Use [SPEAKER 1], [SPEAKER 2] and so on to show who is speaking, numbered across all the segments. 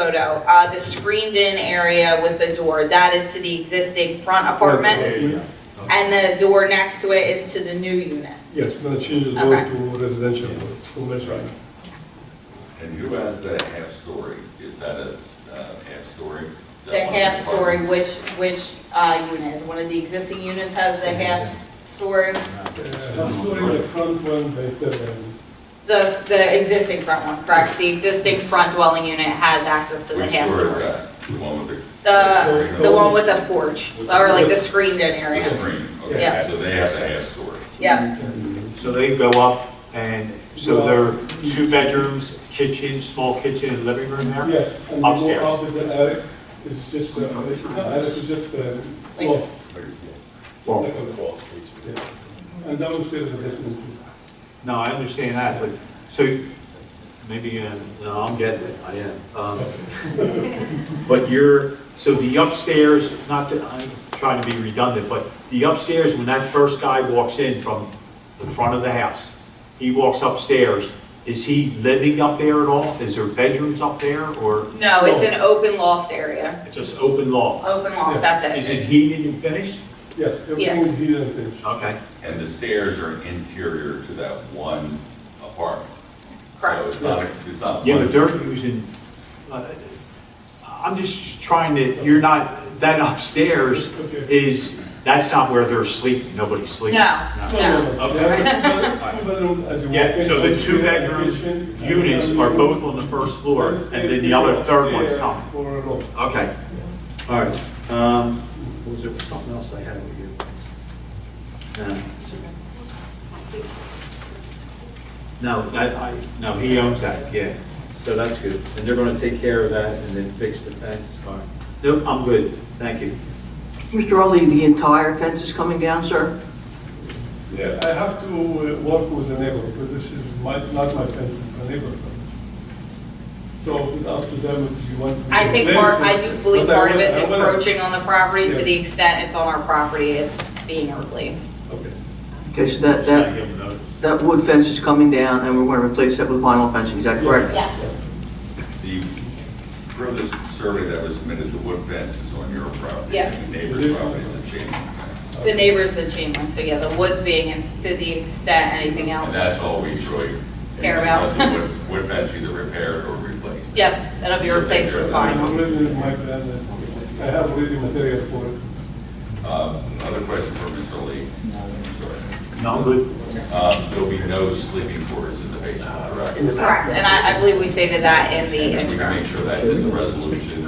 [SPEAKER 1] photo, uh, the screened-in area with the door, that is to the existing front apartment, and the door next to it is to the new unit.
[SPEAKER 2] Yes, we're gonna change the door
[SPEAKER 1] Okay.
[SPEAKER 2] to residential, it's full measure.
[SPEAKER 3] And who has that half-story? Is that a uh, half-story?
[SPEAKER 1] The half-story, which, which uh, unit? One of the existing units has the half-story,
[SPEAKER 2] One story in Uh, the front, one by the,
[SPEAKER 1] the, the existing front one, correct? The existing front dwelling unit has access to the
[SPEAKER 3] Which door is
[SPEAKER 1] half-story.
[SPEAKER 3] that? The one with
[SPEAKER 1] The, the one with the porch, or like the screened-in
[SPEAKER 3] the- the
[SPEAKER 1] area.
[SPEAKER 3] screen? Okay,
[SPEAKER 1] Yeah.
[SPEAKER 3] so they have the half-story.
[SPEAKER 1] Yeah,
[SPEAKER 4] So they go up and, so there are two bedrooms, kitchen, small kitchen and living room there?
[SPEAKER 2] yes. and the wall
[SPEAKER 4] Upstairs.
[SPEAKER 2] out is the attic, it's just, uh, it's not attic, it's just, uh,
[SPEAKER 1] Like-
[SPEAKER 2] off.
[SPEAKER 4] Well,
[SPEAKER 2] Like a wall space. And downstairs is this,
[SPEAKER 4] No, I understand that, but, so, maybe, uh, no, I'm getting it, I am. Um, But you're, so the upstairs, not that, I'm trying to be redundant, but the upstairs, when that first guy walks in from the front of the house, he walks upstairs, is he living up there at all? Is there bedrooms up there, or
[SPEAKER 1] no, it's an open loft area,
[SPEAKER 4] it's just open loft?
[SPEAKER 1] open loft, that's
[SPEAKER 4] Is
[SPEAKER 1] it.
[SPEAKER 4] it heated and finished?
[SPEAKER 2] yes, everything
[SPEAKER 1] Yes.
[SPEAKER 2] is heated and finished.
[SPEAKER 4] Okay.
[SPEAKER 3] And the stairs are interior to that one apartment.
[SPEAKER 1] Correct.
[SPEAKER 3] So it's not, it's not.
[SPEAKER 4] Yeah, but
[SPEAKER 3] one-
[SPEAKER 4] they're using, uh, I'm just trying to, you're not, that upstairs
[SPEAKER 2] Okay.
[SPEAKER 4] is, that's not where they're sleeping, nobody's sleeping.
[SPEAKER 1] No, no.
[SPEAKER 4] Okay.
[SPEAKER 2] Two bedrooms as you walk in.
[SPEAKER 4] Yeah, so the two
[SPEAKER 2] kitchen,
[SPEAKER 4] bedroom
[SPEAKER 2] and
[SPEAKER 4] units
[SPEAKER 2] then
[SPEAKER 4] are
[SPEAKER 2] you-
[SPEAKER 4] both on the first floor, and then the other third one's not.
[SPEAKER 2] For a loft.
[SPEAKER 4] Okay, all right. Um, what Was there something else I had Um, with you? No. No, that, I, no, he owns that, yeah. So that's good. And they're gonna take care of that and then fix the fence, all right. Nope, I'm good, thank you.
[SPEAKER 5] Mr. Ali, the entire fence is coming down, sir?
[SPEAKER 2] Yeah, I have to uh, work with the neighbor, because this is my, not my fence, it's the neighbor's fence. So it's up to them if you want. to
[SPEAKER 1] I think
[SPEAKER 2] replace
[SPEAKER 1] part, I
[SPEAKER 2] it.
[SPEAKER 1] do believe
[SPEAKER 2] But I
[SPEAKER 1] part of
[SPEAKER 2] wanna-
[SPEAKER 1] it's
[SPEAKER 2] I wanna-
[SPEAKER 1] encroaching on the property to
[SPEAKER 2] Yeah.
[SPEAKER 1] the extent it's on our property, it's being replaced.
[SPEAKER 2] Okay.
[SPEAKER 5] Okay, so
[SPEAKER 4] Just
[SPEAKER 5] that,
[SPEAKER 4] gotta
[SPEAKER 5] that,
[SPEAKER 4] give them notice.
[SPEAKER 5] that wood fence is coming down, and we're going to replace that with vinyl fencing, is that correct?
[SPEAKER 1] Yes.
[SPEAKER 3] The, per the survey that was submitted, the wood fence is on your property.
[SPEAKER 1] Yeah.
[SPEAKER 3] And the neighbor's property is a chain link fence.
[SPEAKER 1] The neighbor's the chain link, so yeah, the woods being, and to the extent anything
[SPEAKER 3] And
[SPEAKER 1] else.
[SPEAKER 3] that's all we really.
[SPEAKER 1] Care about.
[SPEAKER 3] The Wood wood fence either repaired or replaced.
[SPEAKER 1] Yep, that'll be replaced with
[SPEAKER 2] I
[SPEAKER 1] vinyl.
[SPEAKER 2] already have my plan, uh, I have already material for it.
[SPEAKER 3] Um, Another question for Mr. Lee. I'm sorry.
[SPEAKER 4] No, good.
[SPEAKER 3] Um, There'll be no sleeping quarters in the basement, correct?
[SPEAKER 1] Correct, and I, I believe we stated that in the
[SPEAKER 3] And we
[SPEAKER 1] intro.
[SPEAKER 3] can make sure that's in the resolution.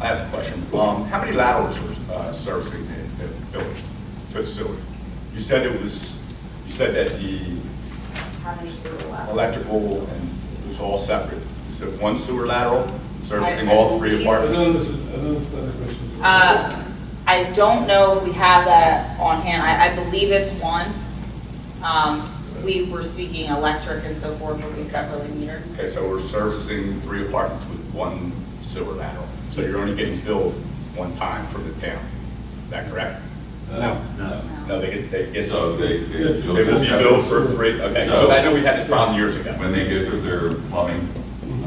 [SPEAKER 6] I have a question. Um, how many laterals were uh, servicing the, the building, the facility? You said it was, you said that the
[SPEAKER 1] How many do we have?
[SPEAKER 6] electrical and it was all separate. You said one sewer lateral servicing all three
[SPEAKER 2] I don't
[SPEAKER 6] apartments?
[SPEAKER 2] understand, I don't understand the question. so-
[SPEAKER 1] Uh, I don't know if we have that on hand, I, I believe it's one. Um, we were speaking electric and so forth, will be separately metered.
[SPEAKER 6] Okay, so we're servicing three apartments with one sewer lateral. So you're only getting billed one time from the town. Is that correct?
[SPEAKER 3] No. uh,
[SPEAKER 4] No.
[SPEAKER 6] No, they get, they get,
[SPEAKER 3] So they, they.
[SPEAKER 6] they will be billed for three, okay. Because I know we had this problem years ago.
[SPEAKER 3] When they go through their plumbing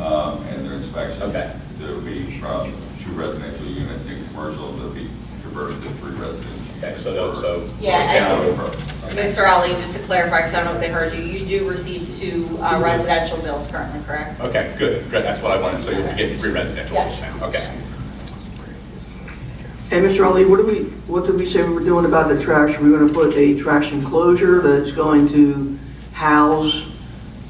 [SPEAKER 3] um, and their inspection.
[SPEAKER 6] Mm-hmm. Okay.
[SPEAKER 3] There'll be from two residential units in commercial, they'll be converted to three residential.
[SPEAKER 6] Okay, so,
[SPEAKER 3] units
[SPEAKER 6] they'll-
[SPEAKER 3] for-
[SPEAKER 6] so.
[SPEAKER 1] Yeah, I-
[SPEAKER 3] Town purposes.
[SPEAKER 1] Mr. Ali, just to clarify, because I don't know if they heard you, you do receive two uh, residential bills currently, correct?
[SPEAKER 6] Okay, good, good, that's what I wanted, so you'll be getting free residential,
[SPEAKER 1] Yeah.
[SPEAKER 6] okay.
[SPEAKER 5] And Mr. Ali, what do we, what did we say we were doing about the trash? Are we going to put a trash enclosure that's going to house,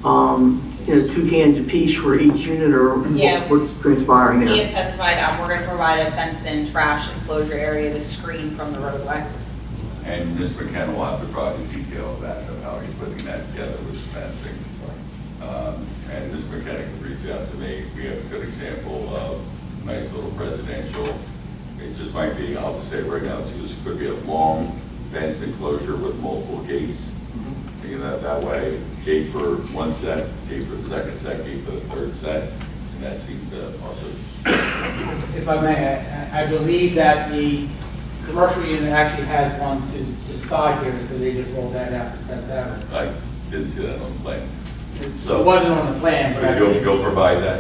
[SPEAKER 5] um, you know, two cans apiece for each unit, or what-
[SPEAKER 1] Yeah.
[SPEAKER 5] what's transpiring
[SPEAKER 1] He had
[SPEAKER 5] there?
[SPEAKER 1] testified, um, we're gonna provide a fenced-in trash enclosure area to screen from the roadway.
[SPEAKER 3] And Ms. McKenna will have to provide the detail of that, of how he's putting that together with fencing. Um, And Ms. McKenna can reach out to me. We have a good example of nice little residential. It just might be, I'll just say right now, it's just could be a long fenced enclosure with multiple gates. You know, that way, gate for one set, gate for the second set, gate for the third set, and that seems to also
[SPEAKER 7] If I may, I- I believe that the commercial unit actually has one to to the side here, so they just rolled that out. that- that out.
[SPEAKER 3] I didn't see that on the plan.
[SPEAKER 7] It
[SPEAKER 3] So-
[SPEAKER 7] wasn't on the plan, but I
[SPEAKER 3] But You'll, you'll provide that